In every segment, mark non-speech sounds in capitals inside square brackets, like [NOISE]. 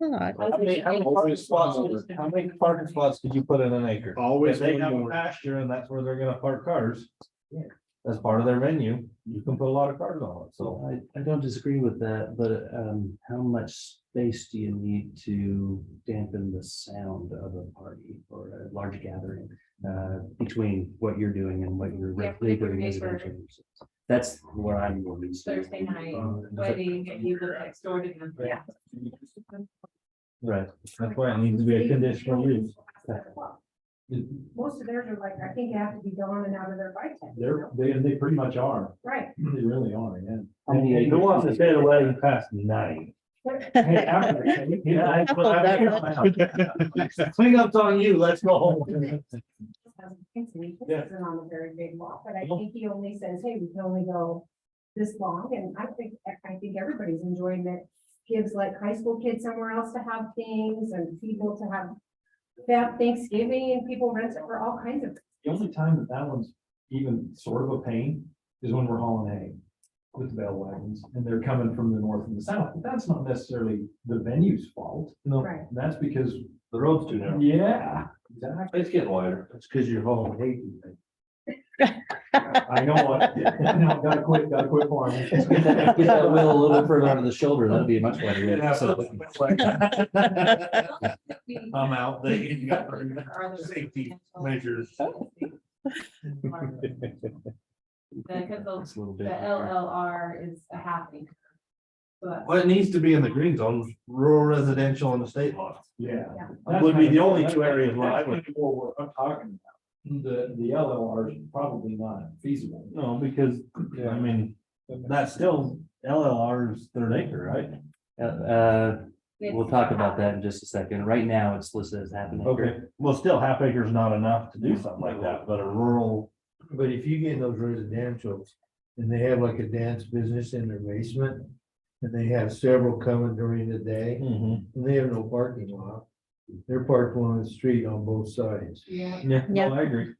thought, How many, how many parking spots, how many parking spots could you put in an acre? If Always they one have a more. pasture and that's where they're gonna park cars. Yeah. As part of their venue, you can put a lot of cars on it, so. So I, I don't disagree with that, but um, how much space do you need to dampen the sound of a party or a large gathering? Uh, between what you're doing and what you're Yeah, really doing neighbor. residential. uses. That's where I'm going. to- Um, Thursday night, wedding, and you look next door to them, yeah. Right, that's why it needs to be a conditional use. Most of theirs are like, I think they have to be gone and out of their bike. tent, They're, they, they pretty much are, [LAUGHS] Right. they really are, yeah. How many And Who wants to acres? stay away past nine? [LAUGHS] Hey, after- yeah, I- Couple Cleanup's on you, let's go [LAUGHS] home. Thinks he Yeah. isn't on a very big walk, but I No. think he only says, hey, we can only go this long, and I think, I think everybody's enjoying that. Gives like high school kids somewhere else to have things and people to have, they have Thanksgiving and people rent it for all kinds of. The only time that that one's even sort of a pain is when we're hauling hay with the bale wagons and they're coming from the north and the south. But That's not necessarily the venue's fault. No. Right. That's because, The road's too narrow. yeah, exactly. It's getting wider. It's because you're home. Hey, [LAUGHS] I know what, [LAUGHS] No, gotta quit, gotta quit [LAUGHS] farming. [LAUGHS] Get that get that wheel a little further under the shoulder, that'd be a much better. way to sell it. We I'm out. They you got are the- [LAUGHS] safety measures. [LAUGHS] Because the It's a little the bit- LLR is a half acre. But Well, it needs to be in the green zone, rural residential and the state law. Yeah. Yeah. That Would be the only two areas where I would- That's what we're- I'm talking about. The, the LLR is probably not feasible. No, because, I mean, that's still LLR's third acre, right? Uh, uh, it's- we'll talk about that in just a second. Right now, it's listed as happening. Okay, well, still half acre is not enough to do something like that, but a rural. But if you get in those residential's and they have like a dance business in their basement. And they have several coming during the day Mm-hmm. and they have no parking lot. They're parked on the street on both sides. Yeah, Yeah, Yeah. no, I agree.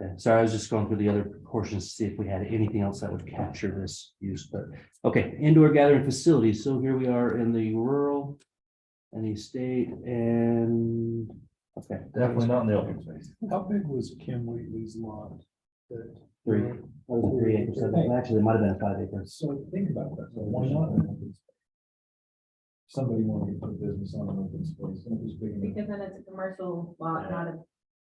Okay, Sorry, I was just going through the other portions to see if we had anything else that would capture this use, but, okay, indoor gathering facilities, so here we are in the rural. And the state and, okay. Definitely not in the open space. How big was Kim Wheatley's lot? Three, that was three acres, actually, it might have been five acres, So think about that, so why not? an open space? Somebody wanted to put a business on an open space, and it was big enough. because then it's a commercial lot, not a.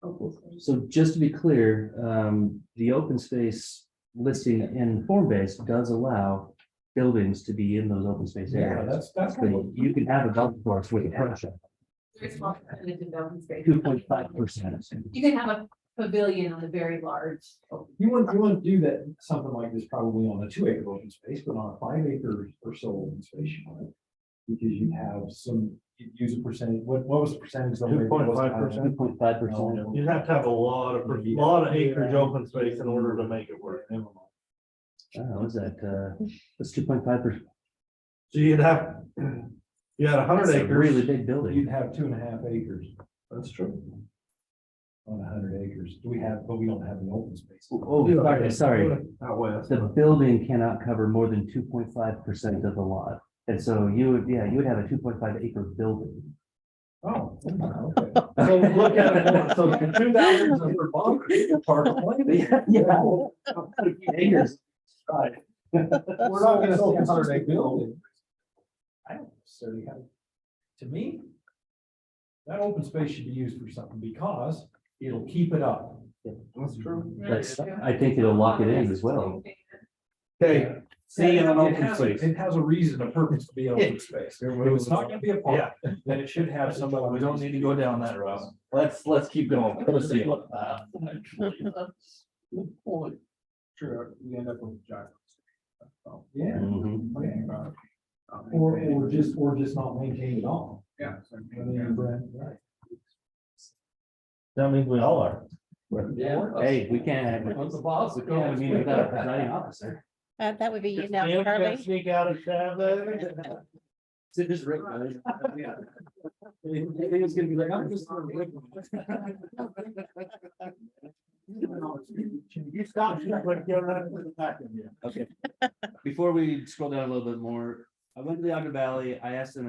open space. so just to be clear, um, the open space listing in form base does allow. Buildings to be in those open space Yeah, areas, that's, that's. but you can have a golf course with a front Very small percentage of open space. two point five percent. You can have a pavilion on a very large. open- You wouldn't, you wouldn't do that, something like this probably on a two acre open space, but on a five acre or so open space, you might. Because you have some, you'd use a percentage, what, what was the percentage? that was- 2.5%. Two point five percent. No, You'd have to have a lot of, a lot of acreage open space in order to make it work. never mind. Oh, is that, uh, that's two point five percent. So you'd have, you had a hundred Really acres. big You'd building. have two and a half acres That's true. on a hundred acres. Do we have, but we don't have an open space. Oh, sorry, sorry. Out west. The building cannot cover more than two point five percent of the lot. And so you would, yeah, you would have a two point five acre building. Oh, okay. [LAUGHS] So look at it, more. so two thousand under bond, part of land. Yeah. yeah. [LAUGHS] Acres. Right. We're not gonna see a hundred acre building. I don't necessarily have, to me. That open space should be used for something because it'll keep it up. That's true. That's, I think it'll lock it in as well. Okay, see you in an It open has- space. It has a reason, a purpose to be open space. If it's not gonna be a park, then it should have somebody. We don't need to go down that route. Let's, let's keep going. Let's see. Sure, we end up with giant. Yeah. Mhm. Or, or just, or just not maintain at all. Yeah. That means we all are. Hey, we can't have, we What's the boss? can't have a meeting without a presiding officer. Uh, that would be you Just now, Sam can't Charlie. Sneak out of town. So just Rick. knows. [LAUGHS] Everything's gonna be like, I'm just. gonna Rick." You stop, you're like, you're running to the back of you. Okay. Before we scroll down a little bit more, I went to the Ogden Valley. I asked them